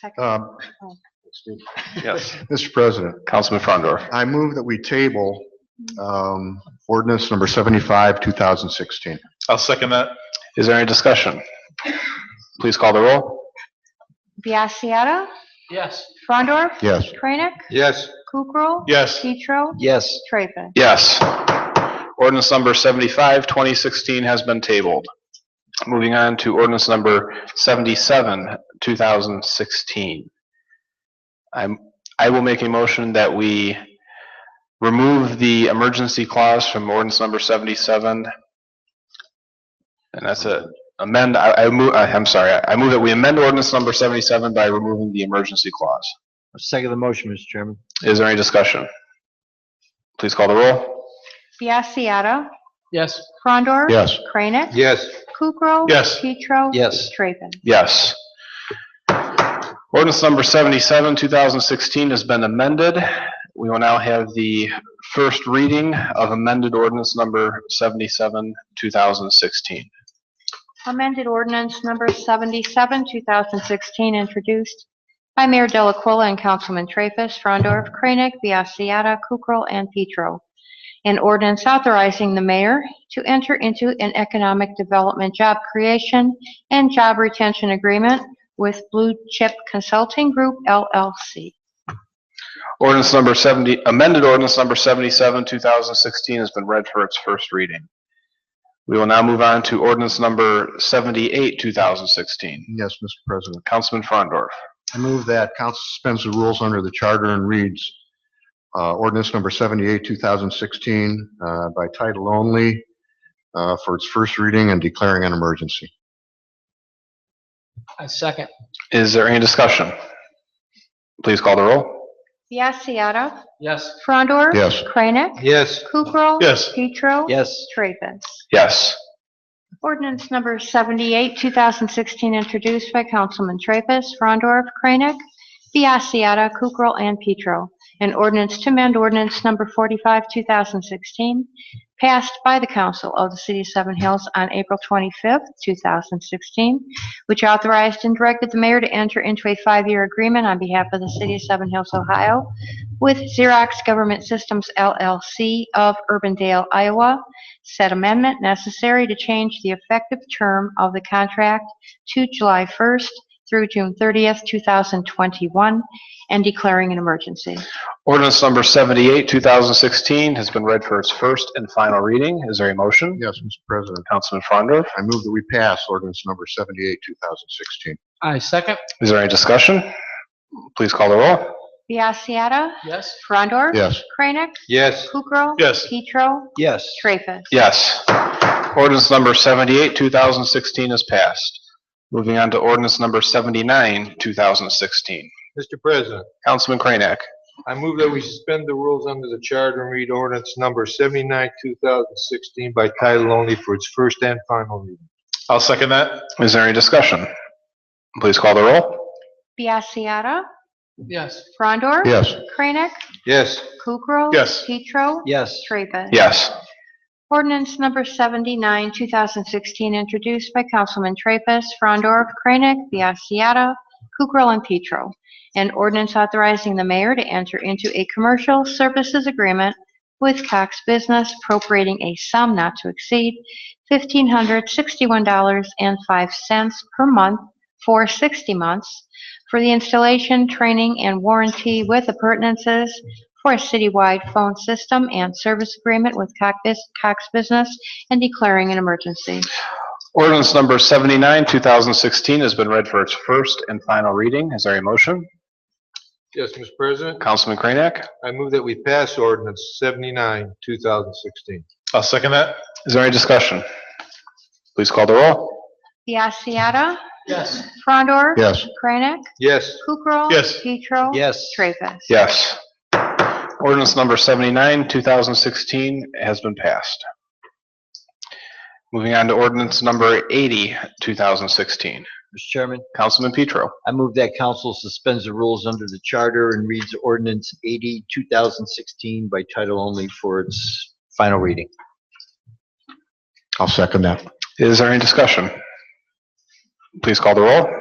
Second. Um, excuse Yes, me. Mr. President, Councilman Frondor. I move that we table um, ordinance number 75, 2016. I'll second that. Is there any discussion? Please call the roll. Biassiata. Yes. Frondor. Yes. Kranek. Yes. Kukrow. Yes. Petro. Yes. Traffus. Yes. Ordinance number 75, 2016 has been tabled. Moving on to ordinance number 77, 2016. I'm, I will make a motion that we remove the emergency clause from ordinance number 77. And that's it. Amend, I, I move, I- I'm sorry, I move that we amend ordinance number 77 by removing the emergency clause. Second the motion, Mr. Chairman. Is there any discussion? Please call the roll. Biassiata. Yes. Frondor. Yes. Kranek. Yes. Kukrow. Yes. Petro. Yes. Traffus. Yes. Ordinance number 77, 2016 has been amended. We will now have the first reading of amended ordinance number 77, 2016. Amended ordinance number 77, 2016, introduced by Mayor Delacuilla and Councilman Traffus, Frondorf, Kranek, Biassiata, Kukrow, and Petro. An ordinance authorizing the mayor to enter into an economic development job creation and job retention agreement with Blue Chip Consulting Group LLC. Ordinance number 70, amended ordinance number 77, 2016 has been read for its first reading. We will now move on to ordinance number 78, 2016. Yes, Mr. President. Councilman Frondorf. I move that council suspends the rules under the charter and reads uh, ordinance number 78, 2016 uh, by title only uh, for its first reading and declaring an emergency. I second. Is there any discussion? Please call the roll. Biassiata. Yes. Frondor. Yes. Kranek. Yes. Kukrow. Yes. Petro. Yes. Traffus. Yes. Ordinance number 78, 2016, introduced by Councilman Traffus, Frondorf, Kranek, Biassiata, Kukrow, and Petro. An ordinance to amend ordinance number 45, 2016, passed by the council of the city of Seven Hills on April 25, 2016, which authorized and directed the mayor to enter into a five-year agreement on behalf of the city of Seven Hills, Ohio, with Xerox Government Systems LLC of Urbandale, Iowa, said amendment necessary to change the effective term of the contract to July 1st through June 30th, 2021, and declaring an emergency. Ordinance number 78, 2016 has been read for its first and final reading. Is there a motion? Yes, Mr. President. Councilman Frondor, I move that we pass ordinance number 78, 2016. I second. is there any discussion? Please call the roll. Biassiata. Yes. Frondor. Yes. Kranek. Yes. Kukrow. Yes. Petro. Yes. Traffus. Yes. Ordinance number 78, 2016 is passed. Moving on to ordinance number 79, 2016. Mr. President, Councilman Kranek, I move that we suspend the rules under the charter and read ordinance number 79, 2016 by title only for its first and final reading. I'll second that. is there any discussion? Please call the roll. Biassiata. Yes. Frondor. Yes. Kranek. Yes. Kukrow. Yes. Petro. Yes. Traffus. Yes. Ordinance number 79, 2016, introduced by Councilman Traffus, Frondorf, Kranek, Biassiata, Kukrow, and Petro. An ordinance authorizing the mayor to enter into a commercial services agreement with Cox Business appropriating a sum not to exceed $1,561.05 per month for 60 months for the installation, training, and warranty with appurtenances for a citywide phone system and service agreement with Cox Bus- Cox Business and declaring an emergency. Ordinance number 79, 2016 has been read for its first and final reading. Is there a motion? Yes, Mr. President, Councilman Kranek, I move that we pass ordinance 79, 2016. I'll second that. Is there any discussion? Please call the roll. Biassiata. Yes. Frondor. Yes. Kranek. Yes. Kukrow. Yes. Petro. Yes. Traffus. Yes. Ordinance number 79, 2016 has been passed. Moving on to ordinance number 80, 2016. Mr. Chairman, Councilman Petro, I move that council suspends the rules under the charter and reads ordinance 80, 2016 by title only for its final reading. I'll second that. is there any discussion? Please call the roll.